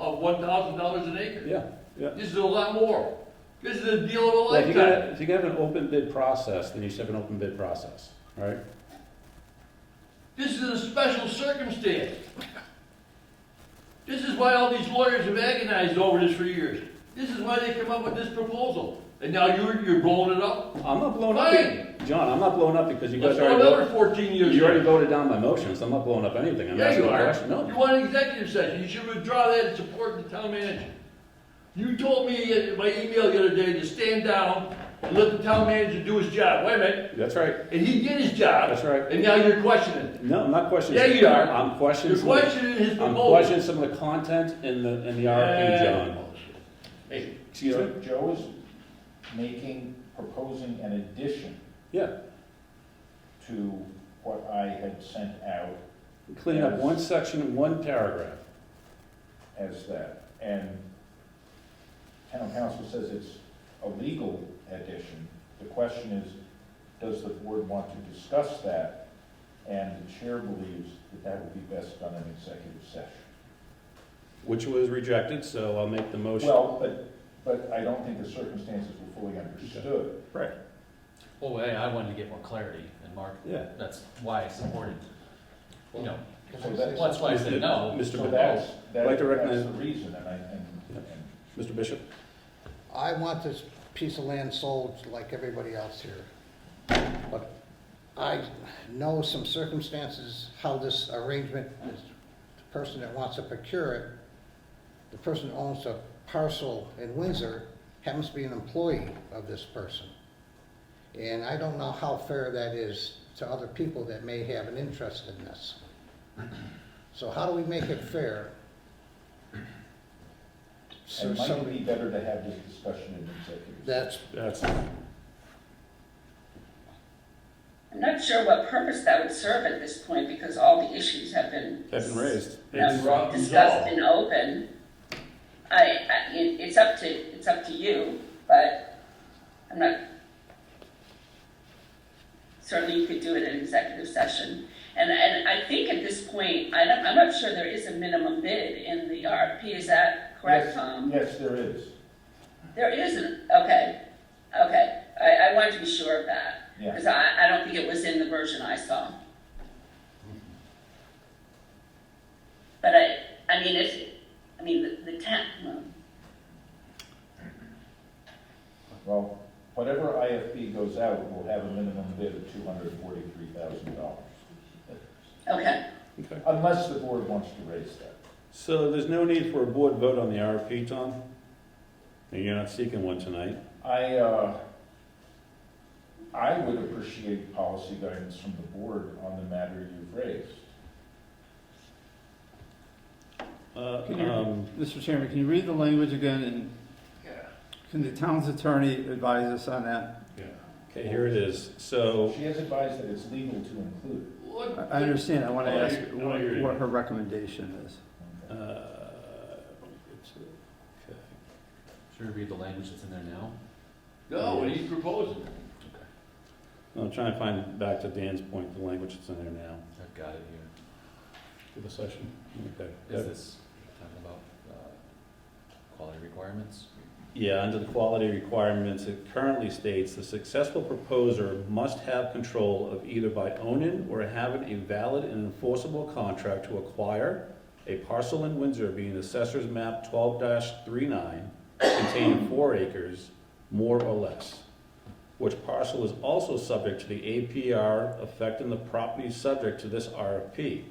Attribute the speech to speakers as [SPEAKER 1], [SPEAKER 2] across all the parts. [SPEAKER 1] one thousand dollars an acre.
[SPEAKER 2] Yeah, yeah.
[SPEAKER 1] This is a lot more. This is a deal of a
[SPEAKER 2] Well, if you got,
[SPEAKER 1] lifetime.
[SPEAKER 2] a- if you got an open bid process, then you should have an open bid process, right?
[SPEAKER 1] This is a special circumstance. This is why all these lawyers have agonized over this for years. This is why they come up with this proposal. And now you're, you're blowing it up?
[SPEAKER 2] I'm not blown up, be- John, I'm not blown up because you
[SPEAKER 1] Let's
[SPEAKER 2] guys
[SPEAKER 1] go
[SPEAKER 2] already, voted-
[SPEAKER 1] another fourteen years.
[SPEAKER 2] you already voted down my motion, so I'm not blowing up anything, I'm
[SPEAKER 1] Yeah,
[SPEAKER 2] asking
[SPEAKER 1] you
[SPEAKER 2] a
[SPEAKER 1] are.
[SPEAKER 2] question, no.
[SPEAKER 1] You want an executive session, you should withdraw that and support the town manager. You told me in my email the other day to stand down and let the town manager do his job. Wait a minute,
[SPEAKER 2] That's right,
[SPEAKER 1] and he did his job,
[SPEAKER 2] that's right.
[SPEAKER 1] and now you're questioning it.
[SPEAKER 2] No, I'm not questioning.
[SPEAKER 1] Yeah, you are.
[SPEAKER 2] I'm
[SPEAKER 1] You're
[SPEAKER 2] questioning, some of
[SPEAKER 1] questioning his
[SPEAKER 2] the- I'm
[SPEAKER 1] proposal.
[SPEAKER 2] questioning some of the content in the, in the
[SPEAKER 1] Yeah.
[SPEAKER 2] RFP, John.
[SPEAKER 1] Hey,
[SPEAKER 2] Excuse me?
[SPEAKER 3] Joe- Joe is making, proposing an addition
[SPEAKER 2] Yeah,
[SPEAKER 3] to what I had sent out
[SPEAKER 2] clean up one section, one paragraph.
[SPEAKER 3] as that. And town council says it's a legal addition. The question is, does the board want to discuss that? And the chair believes that that would be best done in executive session.
[SPEAKER 2] Which was rejected, so I'll make the motion.
[SPEAKER 3] Well, but, but I don't think the circumstances were fully understood.
[SPEAKER 2] Right.
[SPEAKER 4] Well, hey, I wanted to get more clarity, and Mark,
[SPEAKER 2] Yeah.
[SPEAKER 4] that's why I supported, you know,
[SPEAKER 3] So that-
[SPEAKER 4] well, that's why I said no.
[SPEAKER 2] Mr.
[SPEAKER 3] So
[SPEAKER 2] Mr.
[SPEAKER 3] that's, that-
[SPEAKER 2] Like
[SPEAKER 3] that's
[SPEAKER 2] to recommend-
[SPEAKER 3] the reason, and I, and, and
[SPEAKER 2] Mr. Bishop?
[SPEAKER 5] I want this piece of land sold like everybody else here. But I know some circumstances, how this arrangement is, the person that wants to procure it, the person who owns a parcel in Windsor happens to be an employee of this person. And I don't know how fair that is to other people that may have an interest in this. So how do we make it fair? So
[SPEAKER 3] It might
[SPEAKER 5] somebody-
[SPEAKER 3] be better to have this discussion in executive. session.
[SPEAKER 5] that's
[SPEAKER 2] That's,
[SPEAKER 6] I'm not sure what purpose that would serve at this point because all the issues have been.
[SPEAKER 2] that's been raised.
[SPEAKER 6] you know,
[SPEAKER 1] It's rock and roll.
[SPEAKER 6] Discussed and open. I, I, it, it's up to, it's up to you, but I'm not. Certainly you could do it in executive session. And, and I think at this point, I don't, I'm not sure there is a minimum bid in the RFP, is that correct,
[SPEAKER 3] Yes,
[SPEAKER 6] Tom?
[SPEAKER 3] Yes, there is,
[SPEAKER 6] There isn't, okay, okay. I, I wanted to be sure of that.
[SPEAKER 3] Yeah.
[SPEAKER 6] Because I, I don't think it was in the version I saw. But I, I mean, if, I mean, the, the town, well,
[SPEAKER 3] well, whatever IFP goes out will have a minimum bid of two hundred and forty-three thousand dollars.
[SPEAKER 6] okay,
[SPEAKER 2] Okay.
[SPEAKER 3] Unless the board wants to raise that.
[SPEAKER 2] So there's no need for a board vote on the RFP, Tom? And you're not seeking one tonight?
[SPEAKER 3] I, uh, I would appreciate policy guidance from the board on the matter you've raised.
[SPEAKER 2] Uh,
[SPEAKER 7] Can you-
[SPEAKER 2] um,
[SPEAKER 7] Mr. Chairman, can you read the language again, and can the town's attorney advise us on that?
[SPEAKER 2] Okay, here it is. So,
[SPEAKER 3] She has advised that it's legal to include it.
[SPEAKER 7] I
[SPEAKER 1] Look,
[SPEAKER 7] I understand, I want to
[SPEAKER 2] Oh, I
[SPEAKER 7] ask
[SPEAKER 2] hear- oh, I
[SPEAKER 7] what
[SPEAKER 2] hear you.
[SPEAKER 7] what her recommendation is.
[SPEAKER 2] uh,
[SPEAKER 4] Should we read the language that's in there now?
[SPEAKER 1] No, what he's proposing.
[SPEAKER 2] I'm trying to find back to Dan's point, the language that's in there now.
[SPEAKER 4] I've got it here.
[SPEAKER 2] For the session? Okay.
[SPEAKER 4] Is this talking about, uh, quality requirements?
[SPEAKER 2] Yeah, under the quality requirements, it currently states the successful proposer must have control of either by owning or having a valid and enforceable contract to acquire a parcel in Windsor being assessor's map twelve 39 containing four acres, more or less. Which parcel is also subject to the APR affecting the property subject to this RFP.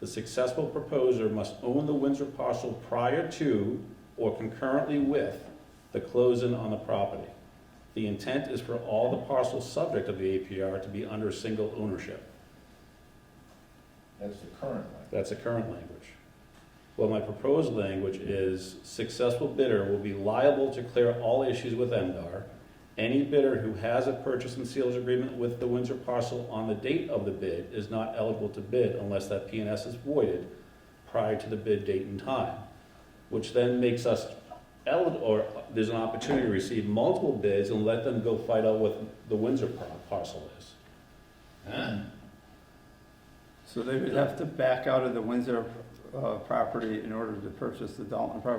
[SPEAKER 2] The successful proposer must own the Windsor parcel prior to or concurrently with the closing on the property. The intent is for all the parcels subject of the APR to be under single ownership.
[SPEAKER 3] That's the current language.
[SPEAKER 2] That's the current language. Well, my proposed language is successful bidder will be liable to clear all issues with MDR. Any bidder who has a purchase and sales agreement with the Windsor parcel on the date of the bid is not eligible to bid unless that PNS is voided prior to the bid date and time, which then makes us eligible, or there's an opportunity to receive multiple bids and let them go fight out what the Windsor par- parcel is.
[SPEAKER 7] So they would have to back out of the Windsor uh, property in order to purchase the Dalton property